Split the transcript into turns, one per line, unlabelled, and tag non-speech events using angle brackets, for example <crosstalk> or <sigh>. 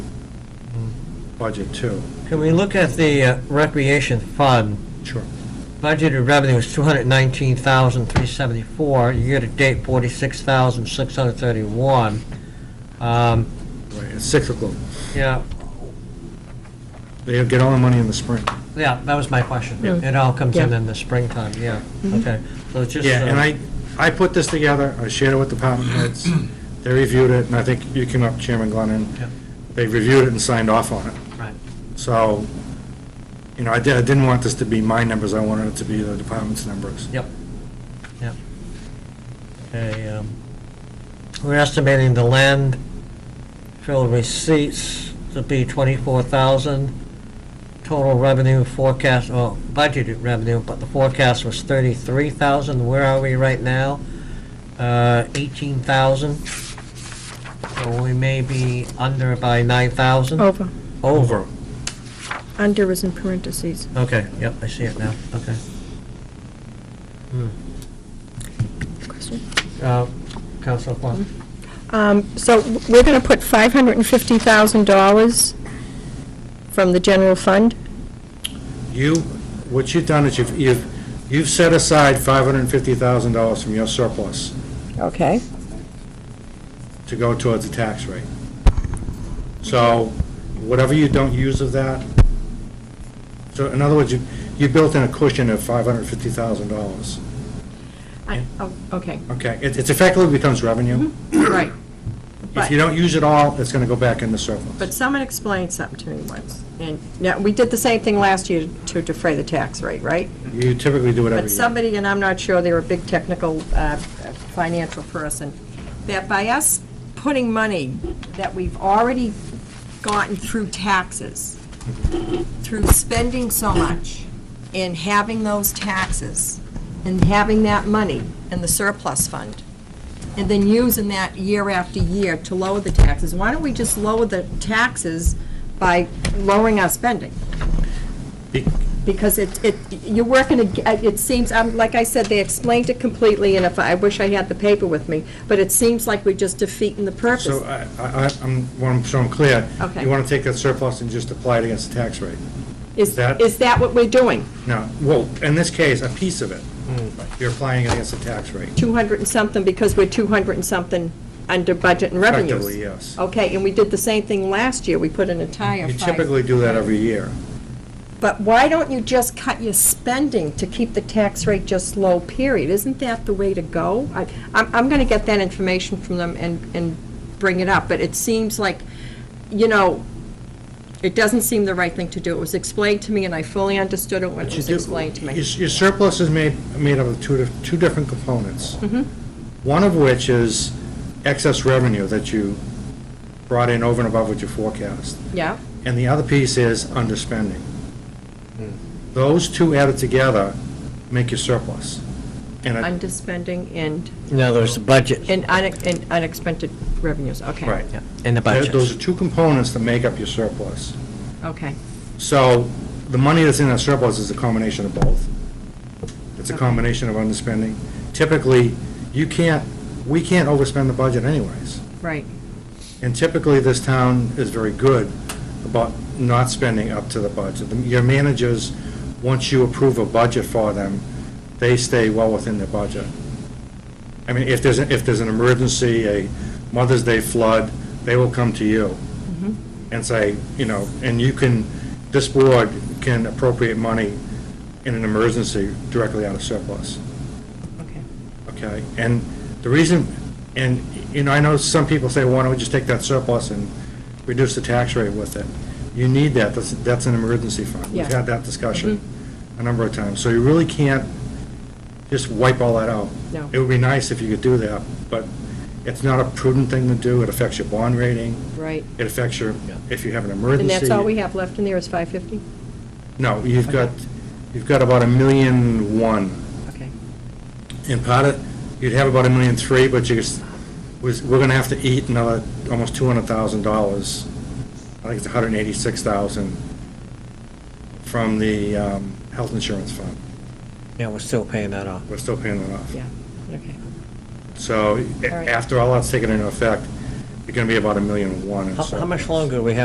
budget too.
Can we look at the uh, recreation fund?
Sure.
Budgeted revenue is two hundred nineteen thousand, three seventy-four, year-to-date forty-six thousand, six hundred thirty-one. Um,
Right, It's cyclical.
yeah,
They get all the money in the spring.
yeah, that was my question. It all comes in
Yeah.
in the springtime, yeah, okay. So it's just.
Yeah, and
uh,
I, I put this together, I shared it with department
<clears throat>
heads, they reviewed it, and I think you came up, Chairman Glennon.
Yeah.
They reviewed it and signed off on it.
Right,
So, you know, I did, I didn't want this to be my numbers, I wanted it to be the department's numbers.
yep, yep. Okay, um, we're estimating the land fill receipts to be twenty-four thousand. Total revenue forecast, well, budgeted revenue, but the forecast was thirty-three thousand. Where are we right now? Uh, eighteen thousand. So we may be under by nine thousand.
Over.
Over.
Under is in parentheses.
Okay, yep, I see it now, okay. Hmm.
Question.
Uh, Counselor Plum?
Um, So w- we're going to put $550,000 from the general fund?
You, what you've done is you've, you've, you've set aside five hundred and fifty thousand dollars from your surplus
Okay,
to go towards the tax rate. So, whatever you don't use of that, so in other words, you, you built in a cushion of five hundred and fifty thousand dollars.
I- oh, Okay,
Okay, it it effectively becomes revenue.
Mm-hmm. right.
If you
But-
don't use it all, it's gonna go back in the surplus.
But someone explained something to me once, and, now, we did the same thing last year to defray the tax rate, right?
You typically do it every
But
year.
somebody, and I'm not sure, they were a big technical, uh, financial person, that by us putting money that we've already gotten through taxes, through spending so much, and having those taxes, and having that money in the surplus fund, and then using that year after year to lower the taxes, why don't we just lower the taxes by lowering our spending?
Be-
Because it, it, you're working, ag- uh, it seems, um, like I said, they explained it completely, and if, I wish I had the paper with me, but it seems like we're just defeating the purpose.
So uh, I, I, I- I'm, well, I'm- so I'm clear.
Okay.
You wanna take that surplus and just apply it against the tax rate.
Is,
that-
is that what we're doing?
No, well, in this case, a piece of it, you're applying it against the tax rate.
200 and something, because we're 200 and something under budget and revenues?
Effectively, yes.
Okay, and we did the same thing last year, we put an entire
You
five.
typically do that every year.
But why don't you just cut your spending to keep the tax rate just low, period? Isn't that the way to go? I- I'm, I'm going to get that information from them and, and bring it up, but it seems like, you know, it doesn't seem the right thing to do. It was explained to me, and I fully understood it when it
But you
was
do-
explained to
Your
me.
your surplus is made, made up of two, dif- two different components.
Mm-hmm.
One of which is excess revenue that you brought in over and above what you forecast.
Yeah,
And the other piece is underspending.
Hmm.
Those two added together make your surplus. And it-
underspending and,
No, there's the budget.
and unex- and unexpected revenues, okay.
Right.
Yeah, in the
Th-
budget.
Those are two components that make up your surplus.
Okay,
So the money that's in that surplus is a combination of both. It's a combination of underspending. Typically, you can't, we can't overspend the budget anyways.
right.
And typically, this town is very good about not spending up to the budget. The- Your managers, once you approve a budget for them, they stay well within their budget. I mean, if there's, if there's an emergency, a Mother's Day flood, they will come to you and say, you know, and you can, this board can appropriate money in an emergency directly out of surplus.
Okay.
Okay, and the reason, and, you know, I know some people say, why don't we just take that surplus and reduce the tax rate with it? You need that, that's, that's an emergency fund. We've
Yeah. Mm-hmm.
had that discussion a number of times, so you really can't just wipe all that out.
No.
It would be nice if you could do that, but it's not a prudent thing to do, it affects your bond rating.
Right.
It affects your, if you have an emergency.
And that's all we have left in there is 550?
No, you've got, you've got about a million one
Okay.
in part of, you'd have about a million three, but you just, was, we're gonna have to eat another, almost two hundred thousand dollars. I think it's a hundred and eighty-six thousand from the, um, health insurance fund.
Yeah, we're still paying that off.
We're still paying that off.
Yeah, okay.
So, a-
right.
after all that's taken into effect, you're gonna be about a million one. in
How- How much
surplus.
longer do we have